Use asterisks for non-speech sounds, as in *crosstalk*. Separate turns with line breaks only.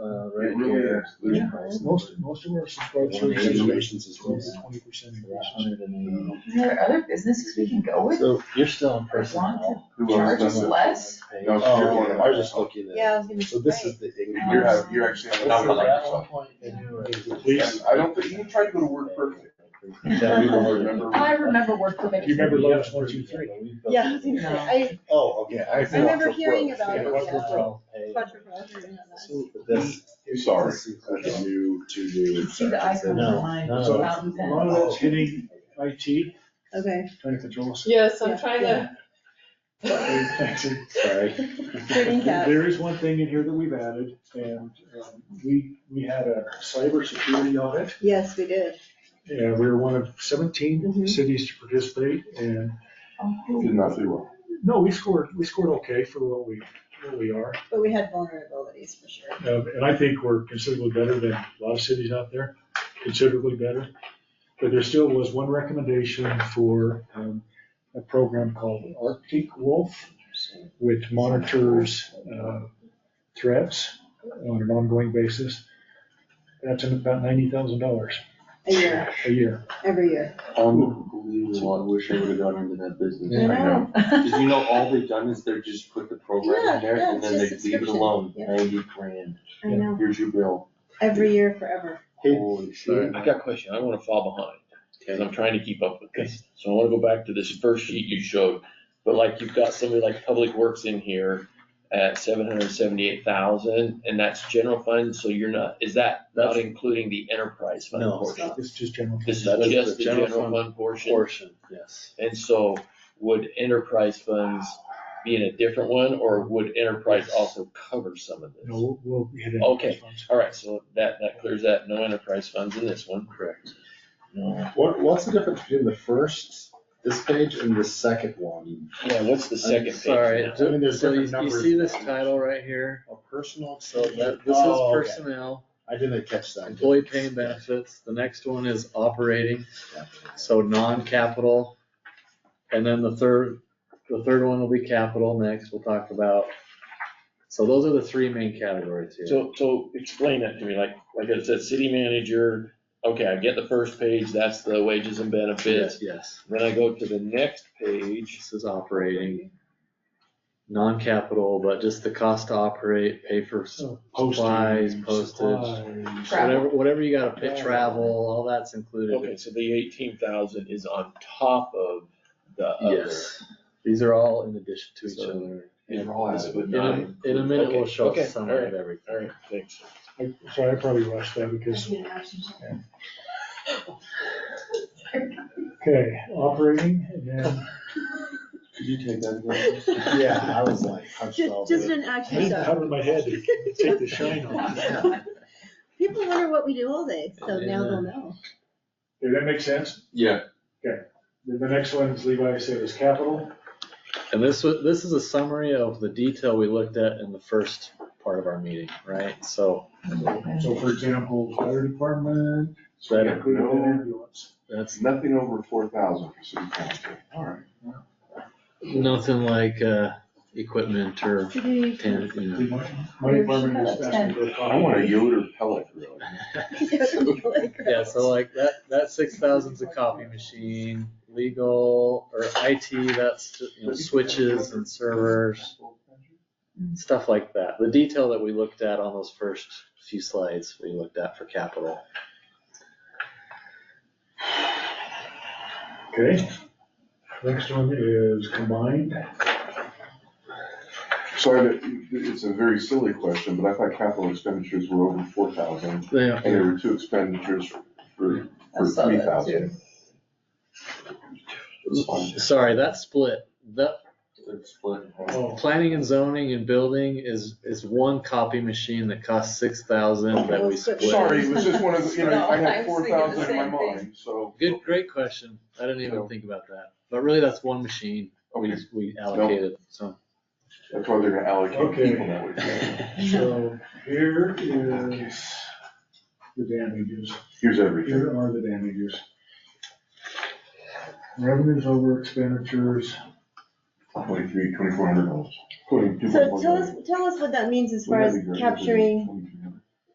Uh,
It really is. There's
Yeah.
price.
Most, most of our
One
subscribers.
hand donations is
Twenty percent increase.
hundred and
Are there other businesses we can go
eighty.
with?
Uh, So you're still in
As
person.
long as it
Who owns
charges
them?
less?
Oh,
No, you're one of
I
them.
was just looking at.
Yeah, I was gonna
So this is the.
You're, ha- you're actually.
This
on
is
the
at
number like
one
yourself.
point they do it.
And I don't think, you tried to go to work perfect.
Yeah, we were-
Remember-
I remember work permit.
Do you remember Lotus one, two, three?
Yeah, I was gonna
*laughs*
say,
Oh, okay. I
I, I remember hearing about it,
Yeah, what's the
yeah.
twelve pay?
Bunch of brothers and all
But
that.
this-
Sorry.
this is like a new, two new.
See the icon *laughs*
No,
line,
no.
So,
fountain
A
pen.
lot of that's hitting IT,
Okay.
trying to control us.
Yes,
Yeah.
I'm trying to.
Thanks.
Sorry.
Herding cats.
There is one thing in here that we've added, and um, we, we had a cybersecurity audit,
Yes, we did.
and we were one of seventeen
Mhm.
cities to participate, and,
Oh,
Did not do well.
no, we scored, we scored okay for what we, what we are.
But we had vulnerabilities for sure.
Um, And I think we're considerably better than a lot of cities out there, considerably better. But there still was one recommendation for um, a program called Arctic Wolf, which monitors uh, threats on an ongoing basis. That's in about ninety thousand dollars
A year,
a year.
every year.
Unbelievable, I wish I would've gone into that business.
I *laughs* know.
Cause you know, all they've done is they're just put the program in there
Yeah, yeah,
and then
it's
they
just
leave it
subscription.
alone,
Yeah.
ninety grand,
I know.
here's your bill,
Every year forever.
holy shit.
I got a question, I don't wanna fall behind, cause I'm trying to keep up with this, so I wanna go back to this first sheet you showed. But like, you've got somebody like Public Works in here at seven hundred seventy-eight thousand, and that's general fund, so you're not, is that not
That's-
including the enterprise fund
No.
portion?
It's just general.
This
That is
is
the
just the
general
general
fund
fund portion,
Portion, yes.
and so would enterprise funds be in a different one, or would enterprise also cover some of this?
No, we'll we hit it.
Okay. All right, so that, that clears that, no enterprise funds in this one.
Correct.
No.
What, what's the difference between the first, this page and the second one?
Yeah, what's the second page?
Sorry,
now?
so-
I mean, there's
so you,
different
you
numbers.
see this title right here?
A personal.
So that, this is
Oh, okay.
personnel,
I didn't catch that.
employee pay and benefits, the next one is operating, so non-capital. And then the third, the third one will be capital next, we'll talk about. So those are the three main categories here.
So, so explain that to me, like, like it said, city manager, okay, I get the first page, that's the wages and benefits.
Yes, yes,
Then I go to the next page,
this is operating, non-capital, but just the cost to operate, pay for
Oh,
supplies, postage.
postage.
Travel.
Whatever, whatever you gotta pay, travel, all that's included.
okay, so the eighteen thousand is on top of the other.
Yes, these are all in addition to each
So-
other. Um,
And all this would
In
not
a, in a minute, we'll
Okay,
show
okay,
a summary of everything.
All right, thanks.
I- Sorry, I probably rushed that because Okay, operating, and then,
Could you take that again? *laughs* Yeah, I was like, hunched
Just,
over.
just an action
I
shot.
covered my head to take the shine off.
*laughs* People wonder what we do all day, so now they'll know.
Did that make sense?
Yeah.
Then the next one is Levi said is capital.
And this was, this is a summary of the detail we looked at in the first part of our meeting, right? So
So for example, fire department.
that
Yeah.
included
No.
ambulance.
that's
Nothing over four thousand for city council. All right.
nothing like, uh, equipment or
*laughs*
tan, you know.
The money- Money department is asking for.
I want a Yoder pellet grill.
Yeah, so like that, that six thousand's a copy machine, legal or IT, that's, you know, switches and servers, stuff like that. The detail that we looked at on those first few slides, we looked at for capital.
Okay. Next one is combined.
Sorry, but it's a very silly question, but I thought capital expenditures were over four thousand,
Yeah.
and there were two expenditures for,
I
for
saw
three
that too.
thousand. It's fine.
Sorry, that split, that,
It's split in half.
Oh,
planning and zoning and building is, is one copy machine that costs six thousand that we split.
Sorry, it was just one of, the- you know, I had
No, I was
four
thinking the
thousand in my
same thing.
mind, so.
Good, great question. I didn't even think about that. But really, that's one machine we,
Okay,
we allocated, so.
that's why they're gonna allocate
Okay.
people that way.
so here is the damages.
Here's everything.
Here are the damages. Revenues over expenditures.
Twenty-three, twenty-four hundred dollars.
So tell us, tell us what that means as far as capturing